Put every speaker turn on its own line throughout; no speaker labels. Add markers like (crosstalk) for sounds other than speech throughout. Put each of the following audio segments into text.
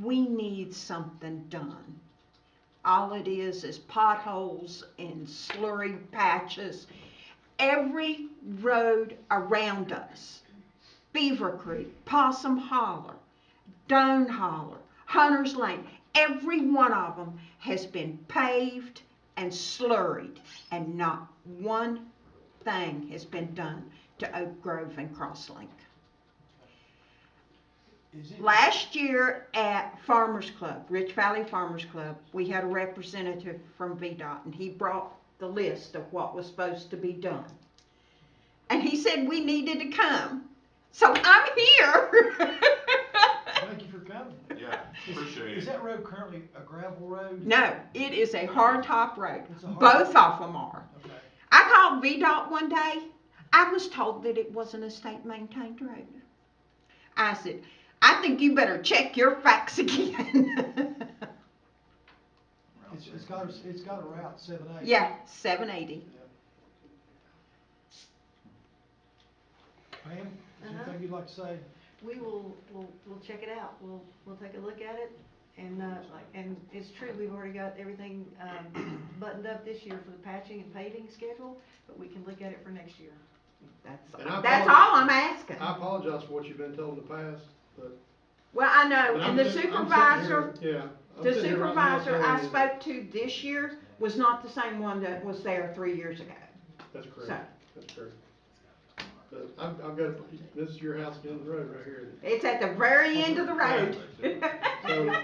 we need something done. All it is is potholes and slurry patches. Every road around us, Beaver Creek, Possum Holler, Doan Holler, Hunter's Lane, every one of them has been paved and slurried, and not one thing has been done to Oak Grove and Crosslink.
Is it-
Last year at Farmers Club, Rich Valley Farmers Club, we had a representative from VDOT and he brought the list of what was supposed to be done. And he said we needed to come. So I'm here. (laughs)
Thank you for coming.
Yeah,
Is-
appreciate
Is
it.
that road currently a gravel road?
no, it is a hard top road.
It's a hard-
Both of them are.
Okay.
I called VDOT one day. I was told that it wasn't a state maintained road. I said, I think you better check your facts (laughs) again.
It's, it's got, a- it's got a route, seven eight.
Yeah, seven eighty.
Pam, is there
Uh-huh.
anything you'd like to say?
We will, we'll, we'll check it out, we'll, we'll take a look at it, and, uh, like, and it's true, we've already got everything, um, (clears throat) buttoned up this year for the patching and paving schedule, but we can look at it for next year.
That's,
And I
that's
apologize-
all I'm asking.
I apologize for what you've been told in the past, but.
Well, I know,
but I'm
Oh, and the
sitting- I'm sitting
supervisor,
here- Yeah. I'm
the
sitting here right now
supervisor I
telling you-
spoke to this year was not the same one that was there three years ago.
That's
so-
correct, that's correct. But I've, I've got, a- this is your house down the road right here.
It's at the very end of the road. (laughs)
So,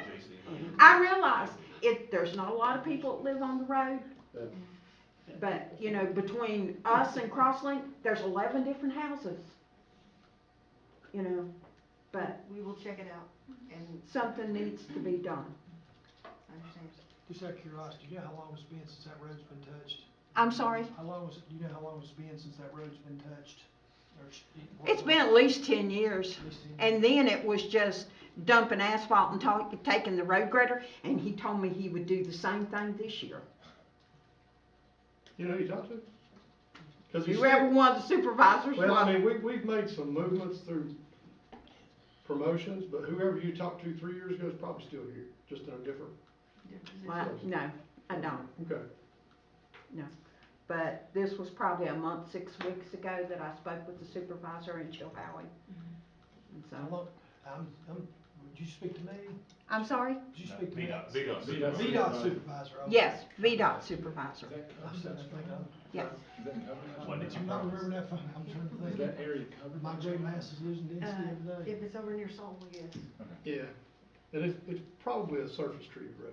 I realize it, there's not a lot of people that live on the road.
Yeah.
But, you know, between us and Crosslink, there's eleven different houses. You know, but
We will check it out, and
something needs to be done.
I understand.
Just out of curiosity, do you know how long it's been since that road's been touched?
I'm sorry?
How long was, do you know how long it's been since that road's been touched? Or it's-
It's been at least ten years.
At least ten years.
And then it was just dumping asphalt and ta- taking the road grader, and he told me he would do the same thing this year.
you know, who you talked to? 'Cause we
You ever one of the supervisors?
Well,
was-
I mean, we, we've made some movements through promotions, but whoever you talked to three years ago is probably still here, just in a different.
Well, no, I don't,
Okay,
but this was probably a month, six weeks ago that I spoke with the supervisor in Chilhowie. And
How
so,
long, I'm, i would you speak to me?
I'm sorry?
Did you speak to me?
VDOT. VDOT.
VDOT supervisor. okay.
Yes, VDOT supervisor,
I'm sitting there thinking, I'm-
yes.
When did you
I'm not
promise?
remembering that, phone. I'm trying to think.
Is that area covered?
My gray mass is losing
Uh,
density every day.
if it's over near Saltville, yes,
yeah, and it's, it's probably a surface treated road,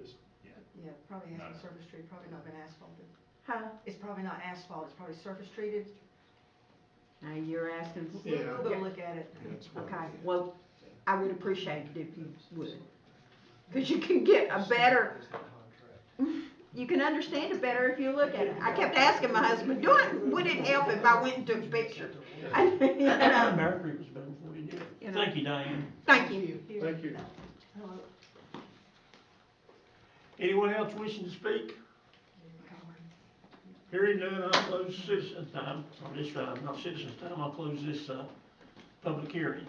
just,
yeah, probably has
No.
been surface treated, probably not been asphalted.
Huh?
It's probably not asphalt, it's probably surface treated,
Now, you're asking,
We'll- we'll,
Yeah.
go look at it.
okay, well, I would appreciate it if you would. Cause you can get a better you can understand it better if you look at it. I kept asking my husband, do it, would it help if I went and took pictures? (laughs) I- you know,
Mercury was better before you knew it.
you know.
Thank you, Diane.
Thank you.
Here.
thank you.
Hello.
Anyone else wishing to speak? Hearing none, I'll close citizens time, or this time, not citizens time, I'll close this, uh, public hearing.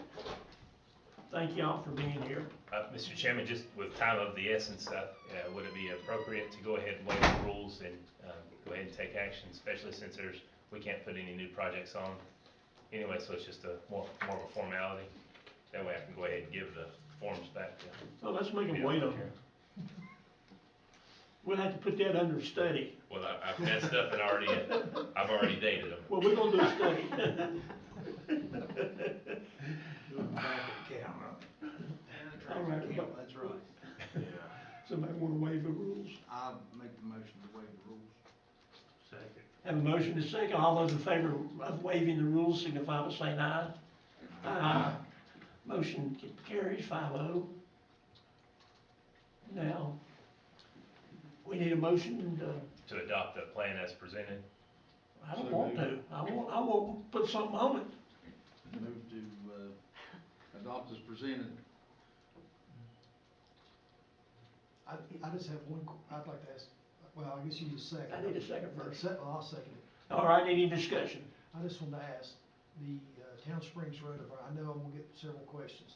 Thank y'all for being here.
Uh, Mr. Chairman, just with time of the essence, uh, uh, would it be appropriate to go ahead and waive the rules and um, go ahead and take action, especially since there's, we can't put any new projects on anyway, so it's just a more, more of a formality. That way I can go ahead and give the forms back to.
So Oh, let's make them wait on here. We'll have to put that under study.
Well, I- I've messed up and already, I've already dated them.
Well, we're gonna do a study. All right, but
That's right.
somebody wanna waive the rules?
I'll make the motion to waive the rules.
Have a motion to second, all those in favor of waiving the rules signify by saying aye. Aye. Motion carries five oh. Now, we need a motion to,
To adopt the plan as presented,
I don't want to, I want, I want to put something on it.
Move to, uh, adopt as presented.
I, I just have one, qu- I'd like to ask, well, I guess you need a second.
I need a second
Uh,
first.
se- well, I'll second it.
All right, any discussion?
I just wanted to ask, the uh, Town Springs Road, I know I'm gonna get several questions.